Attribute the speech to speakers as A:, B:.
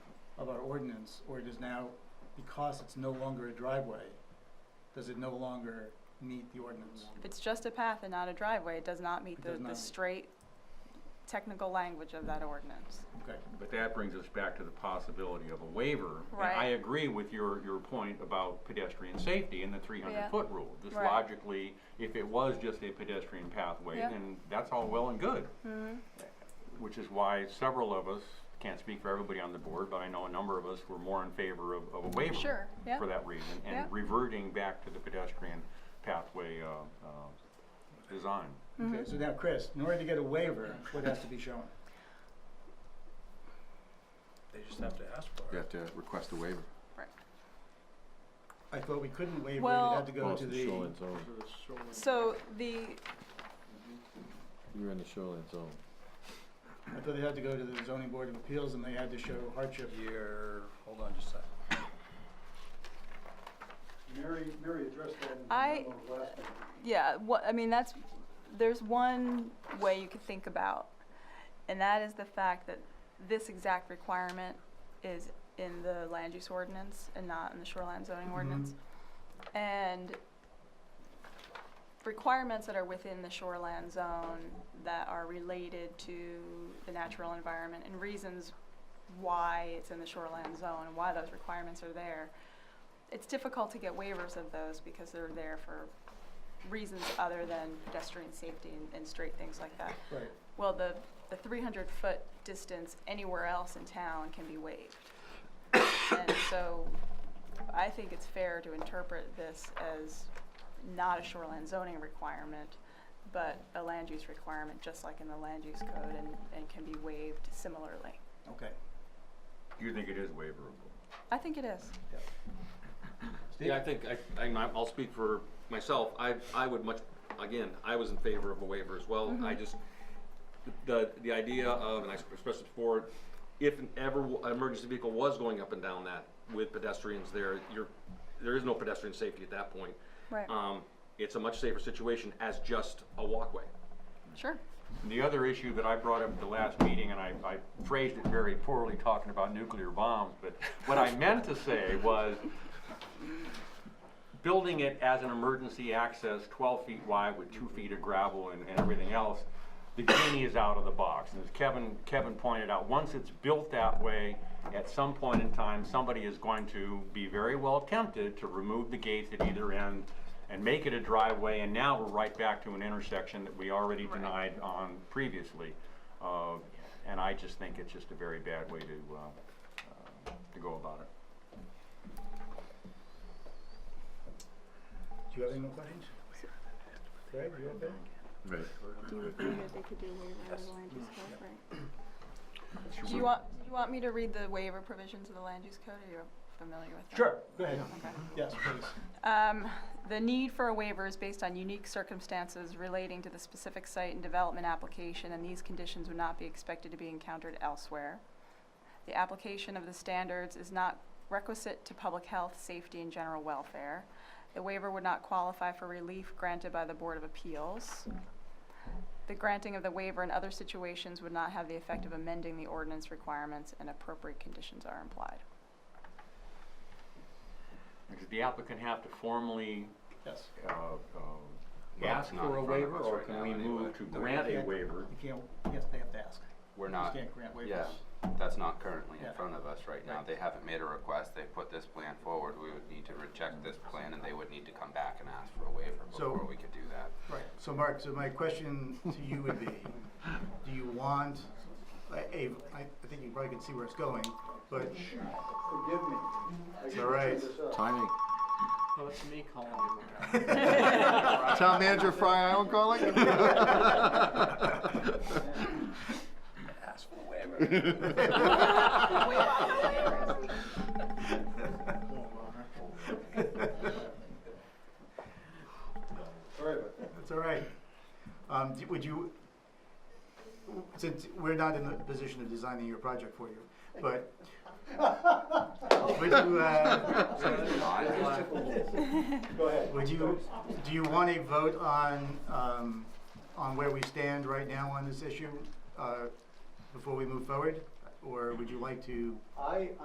A: our ordinance, or it is now, because it's no longer a driveway, does it no longer meet the ordinance?
B: If it's just a path and not a driveway, it does not meet
A: It
B: the,
A: does
B: the
A: not.
B: straight technical language of that ordinance.
A: Okay,
C: But that brings us back to the possibility of a waiver. And I
B: Right.
C: agree with your, your point about pedestrian safety and the three
B: Yeah.
C: hundred foot rule. Just
B: Right.
C: logically, if it was just a pedestrian pathway,
B: Yeah. Mm-hmm.
C: then that's all well and good. Which is why several of us, can't speak for everybody on the board, but I know a number of us were more in favor of, of a waiver.
B: Sure, yeah.
C: For that reason,
B: Yeah.
C: and reverting back to the pedestrian pathway, uh, uh, design.
B: Mm-hmm.
A: okay, so now, Chris, in order to get a waiver, what has to be shown?
D: They just have to ask for
E: You
D: it.
E: have to request a waiver.
A: I thought we couldn't waiver it,
B: Well-
A: it had to go to the,
E: zone.
D: So it's shoreline-
B: So the,
E: You're in the shoreline zone.
A: I thought it had to go to the zoning board of appeals, and they had to show hardship.
D: You're, hold on just a second.
F: Mary, Mary addressed that in the
B: I-
F: memo last meeting.
B: yeah, what, I mean, that's, there's one way you could think about, and that is the fact that this exact requirement is in the land use ordinance and not in the shoreline zoning
A: Mhm.
B: ordinance. And requirements that are within the shoreline zone that are related to the natural environment and reasons why it's in the shoreline zone and why those requirements are there. It's difficult to get waivers of those because they're there for reasons other than pedestrian safety and, and straight things like that.
A: Right,
B: Well, the, the three hundred foot distance anywhere else in town can be waived. And so I think it's fair to interpret this as not a shoreline zoning requirement, but a land use requirement, just like in the land use code and, and can be waived similarly.
A: okay.
C: Do you think it is waiverable?
B: I think it is.
G: Yeah, I think, I, I, I'll speak for myself, I, I would much, again, I was in favor of a waiver as well, I just, the, the idea of, and I expressed it before, if an ever, an emergency vehicle was going up and down that with pedestrians there, you're, there is no pedestrian safety at that point.
B: Right.
G: Um, it's a much safer situation as just a walkway.
B: Sure.
C: The other issue that I brought up at the last meeting, and I, I phrased it very poorly talking about nuclear bombs, but what I meant to say was building it as an emergency access, twelve feet wide with two feet of gravel and, and everything else, the genie is out of the box. And as Kevin, Kevin pointed out, once it's built that way, at some point in time, somebody is going to be very well tempted to remove the gates at either end and make it a driveway, and now we're right back to an intersection that we already denied on previously. Uh, and I just think it's just a very bad way to, uh, uh, to go about it.
A: Do you have any more questions? Greg, you okay?
E: Right.
B: Do you want, do you want me to read the waiver provisions of the land use code, are you familiar with that?
A: Sure, go ahead.
B: Okay.
A: Yes, please.
B: Um, the need for a waiver is based on unique circumstances relating to the specific site and development application, and these conditions would not be expected to be encountered elsewhere. The application of the standards is not requisite to public health, safety, and general welfare. The waiver would not qualify for relief granted by the Board of Appeals. The granting of the waiver in other situations would not have the effect of amending the ordinance requirements, and appropriate conditions are implied.
C: Does the applicant have to formally,
A: Yes.
C: uh, uh, ask
G: um, not
C: for a
G: in front of
C: waiver,
G: us
C: or
G: right
C: can
G: now
C: we
G: anyway.
C: move to grant a
A: Yeah.
C: waiver?
A: You can't, yes, they have to ask.
H: We're
A: You
H: not,
A: can't grant waivers.
H: yeah, that's not currently
A: Yeah.
H: in front of us right now.
A: Right.
H: They haven't made a request, they put this plan forward, we would need to reject this plan and they would need to come back and ask for a waiver
A: So-
H: before we could do that.
A: Right, so Mark, so my question to you would be, do you want, I, I I think you probably can see where it's going, but,
F: Forgive me. I
A: It's
F: didn't
A: all right.
F: clear this up.
E: Timing.
D: No, it's me calling you.
E: Town manager Fry Island calling?
D: Ask for waiver.
F: Sorry about that.
A: it's all right. Um, d- would you, since we're not in the position of designing your project for you, but, would you, uh,
F: Go ahead.
A: would you, do you want a vote on, um, on where we stand right now on this issue, uh, before we move forward? Or would you like to
F: I,